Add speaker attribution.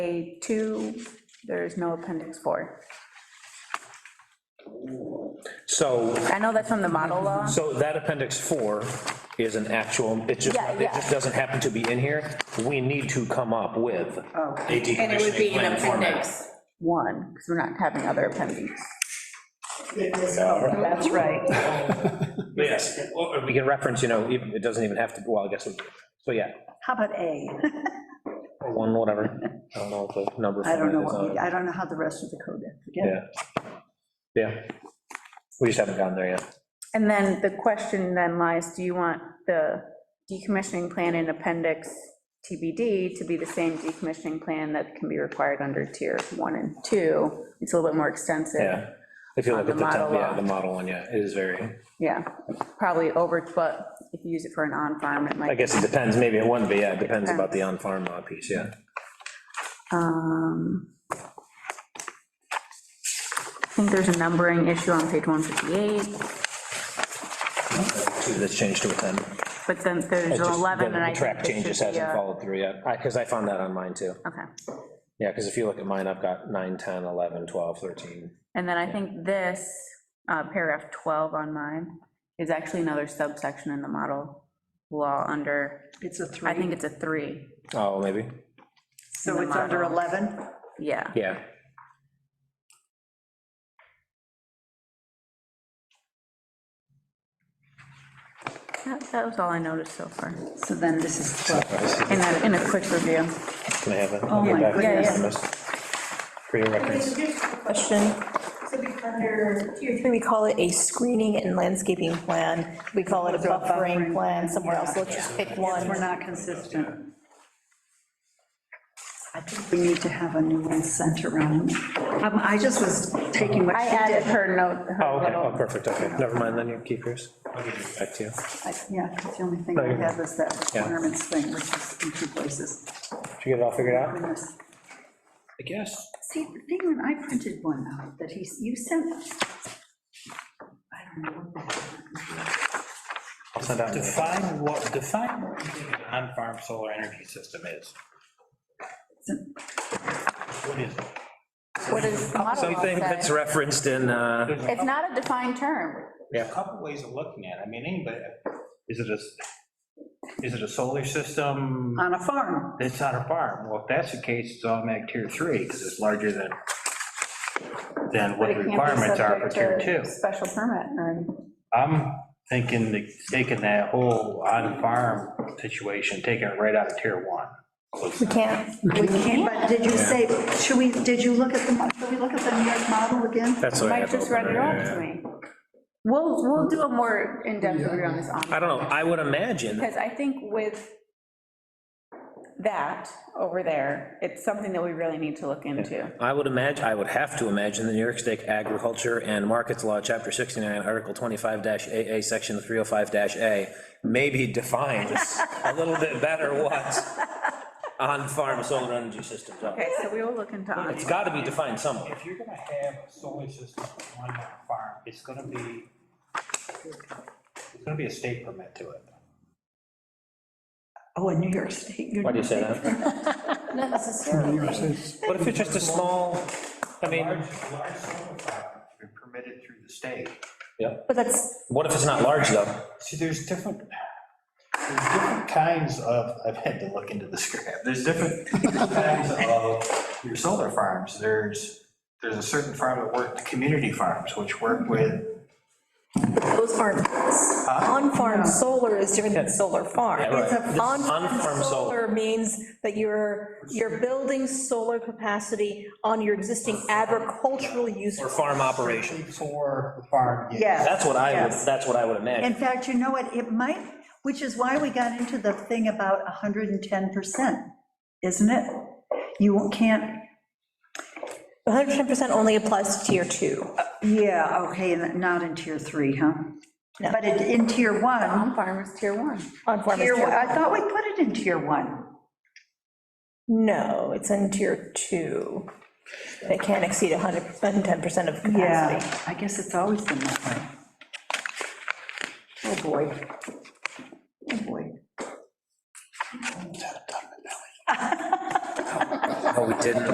Speaker 1: A2, there is no appendix four.
Speaker 2: So,
Speaker 1: I know that's from the model law.
Speaker 2: so that appendix four is an actual, it just,
Speaker 1: Yeah,
Speaker 2: it
Speaker 1: yeah.
Speaker 2: just doesn't happen to be in here. We need to come up with a
Speaker 3: And it would
Speaker 2: decommissioning
Speaker 3: be an
Speaker 2: plan format.
Speaker 3: appendix.
Speaker 1: One, because we're not having other appendix.
Speaker 4: That's right.
Speaker 2: But Yes, or or we can reference, you know, even- it doesn't even have to, well, I guess, it- so yeah,
Speaker 4: How about A?
Speaker 2: or one, whatever. I don't know what the number.
Speaker 4: I don't know,
Speaker 2: format is on
Speaker 4: what
Speaker 2: it.
Speaker 4: we- I don't know how the rest of the code, is. forget it.
Speaker 2: Yeah. Yeah. We just haven't gotten there yet.
Speaker 1: And then the question then lies, do you want the decommissioning plan in appendix TBD to be the same decommissioning plan that can be required under tier one and two? It's a little bit more extensive,
Speaker 2: Yeah. If you
Speaker 1: On
Speaker 2: look at
Speaker 1: the
Speaker 2: the, top-
Speaker 1: model
Speaker 2: yeah,
Speaker 1: law.
Speaker 2: the model one, yeah, it is very,
Speaker 1: yeah, probably over, but if you use it for an on-farm, it
Speaker 2: I
Speaker 1: might.
Speaker 2: guess it depends, maybe it wouldn't be, yeah, it depends about the on-farm law piece, yeah.
Speaker 1: um, I think there's a numbering issue on page 158,
Speaker 2: See, That's changed to a 10.
Speaker 1: but then there's
Speaker 2: It just-
Speaker 1: 11,
Speaker 2: the-
Speaker 1: and I
Speaker 2: The
Speaker 1: think
Speaker 2: track
Speaker 1: this
Speaker 2: changes
Speaker 1: should be
Speaker 2: hasn't
Speaker 1: a-
Speaker 2: followed through yet, because I found that on mine too.
Speaker 1: Okay,
Speaker 2: Yeah, because if you look at mine, I've got 9, 10, 11, 12, 13.
Speaker 1: and then I think this, uh, paragraph 12 on mine, is actually another subsection in the model law under,
Speaker 4: It's a
Speaker 1: I think
Speaker 4: three,
Speaker 1: it's a three,
Speaker 2: Oh, maybe,
Speaker 4: so it's under 11?
Speaker 1: yeah.
Speaker 2: yeah.
Speaker 1: That that was all I noticed so far,
Speaker 4: So then this is
Speaker 2: Oh,
Speaker 4: 12.
Speaker 1: in a, in a quick review.
Speaker 2: Can I have it?
Speaker 4: Oh, my
Speaker 1: goodness.
Speaker 2: For your reference.
Speaker 5: Here's a Question. So we, under tier three, we call it a screening and landscaping plan. We call it a buffering plan somewhere else. Let's just pick
Speaker 4: We're
Speaker 5: one.
Speaker 4: not consistent. I think we need to have a new one sent around. Um, I just was taking what
Speaker 1: I
Speaker 4: she
Speaker 1: added
Speaker 4: did.
Speaker 1: her note,
Speaker 2: Oh,
Speaker 1: her
Speaker 2: okay, oh,
Speaker 1: little,
Speaker 2: perfect, okay, never mind, then you keep yours. I'll give it back to you.
Speaker 4: I- Yeah, 'cause the only thing I had was that requirements thing, which is in two places.
Speaker 2: Did you get it all figured out?
Speaker 4: Goodness.
Speaker 2: I guess.
Speaker 4: See, the thing, when I printed one out, that he, you sent, I don't know what that
Speaker 2: I'll send out.
Speaker 6: Define what, define what you think an on-farm solar energy system is. What is it?
Speaker 1: what is the model law
Speaker 2: Something that's
Speaker 1: say?
Speaker 2: referenced in, uh,
Speaker 6: There's
Speaker 1: It's not a defined term,
Speaker 6: a couple ways of looking at it. I mean, anybody, is it a, s- is it a solar system
Speaker 4: on a farm.
Speaker 6: that's on a farm? Well, if that's the case, it's automatic tier three, because it's larger than, than
Speaker 1: but
Speaker 6: what
Speaker 1: it
Speaker 6: the
Speaker 1: can't be
Speaker 6: requirements are for tier
Speaker 1: subject
Speaker 6: two.
Speaker 1: to special permit, or,
Speaker 6: I'm thinking, that taking that whole on-farm situation, taking it right out of tier one.
Speaker 5: We can't,
Speaker 4: We can't, but did you say, should we, did you look at the, mo- should we look at the New York model again?
Speaker 2: that's what I
Speaker 1: Mike
Speaker 2: have
Speaker 1: just
Speaker 2: open
Speaker 1: read it all
Speaker 2: right
Speaker 1: to
Speaker 2: here.
Speaker 1: me. We'll, we'll do a more in-depth review on this on,
Speaker 2: I don't know, I would imagine,
Speaker 1: because I think with that over there, it's something that we really need to look into.
Speaker 2: I would imagine, I would have to imagine the New York State Agriculture and Markets Law, Chapter 69, Article 25-AA, Section 305-A, maybe defines a little bit better what on-farm solar energy systems are.
Speaker 1: Okay, so we will look into on.
Speaker 2: It's got to be defined somewhere.
Speaker 6: If you're gonna have a solar system on one farm, it's gonna be, it's gonna be a state permit to it.
Speaker 4: Oh, in New York State.
Speaker 2: Why do you say that?
Speaker 5: not necessarily.
Speaker 2: What if it's just a small, I mean,
Speaker 6: Large, large solar farms are permitted through the state.
Speaker 5: But that's,
Speaker 2: what if it's not large, though?
Speaker 6: See, there's different, there's different kinds of, I've had to look into this graph, there's different kinds of your solar farms. There's, there's a certain farm that work, community farms, which work with,
Speaker 5: those aren't, on-farm solar is different than solar farm.
Speaker 2: Yeah, right. It's a- This is
Speaker 5: On-farm
Speaker 2: on-farm solar.
Speaker 5: solar means that you're, you're building solar capacity on your existing agricultural use.
Speaker 2: Or farm operation?
Speaker 6: for the farm. use.
Speaker 4: Yes.
Speaker 2: That's what I would,
Speaker 4: yes.
Speaker 2: that's what I would imagine.
Speaker 4: In fact, you know what, it might, which is why we got into the thing about 110%, isn't it? You can't,
Speaker 5: 110% only applies to tier two.
Speaker 4: yeah, okay, and not in tier three, huh?
Speaker 5: No.
Speaker 4: But in- in tier one,
Speaker 1: On-farm is tier one.
Speaker 5: On-farm is
Speaker 4: tier,
Speaker 5: tier
Speaker 4: one-
Speaker 5: one.
Speaker 4: I thought we put it in tier one.
Speaker 5: No, it's in tier two. It can't exceed 110% of capacity.
Speaker 4: Yeah, I guess it's always been that way. Oh, boy. Oh, boy.
Speaker 2: Oh, we didn't?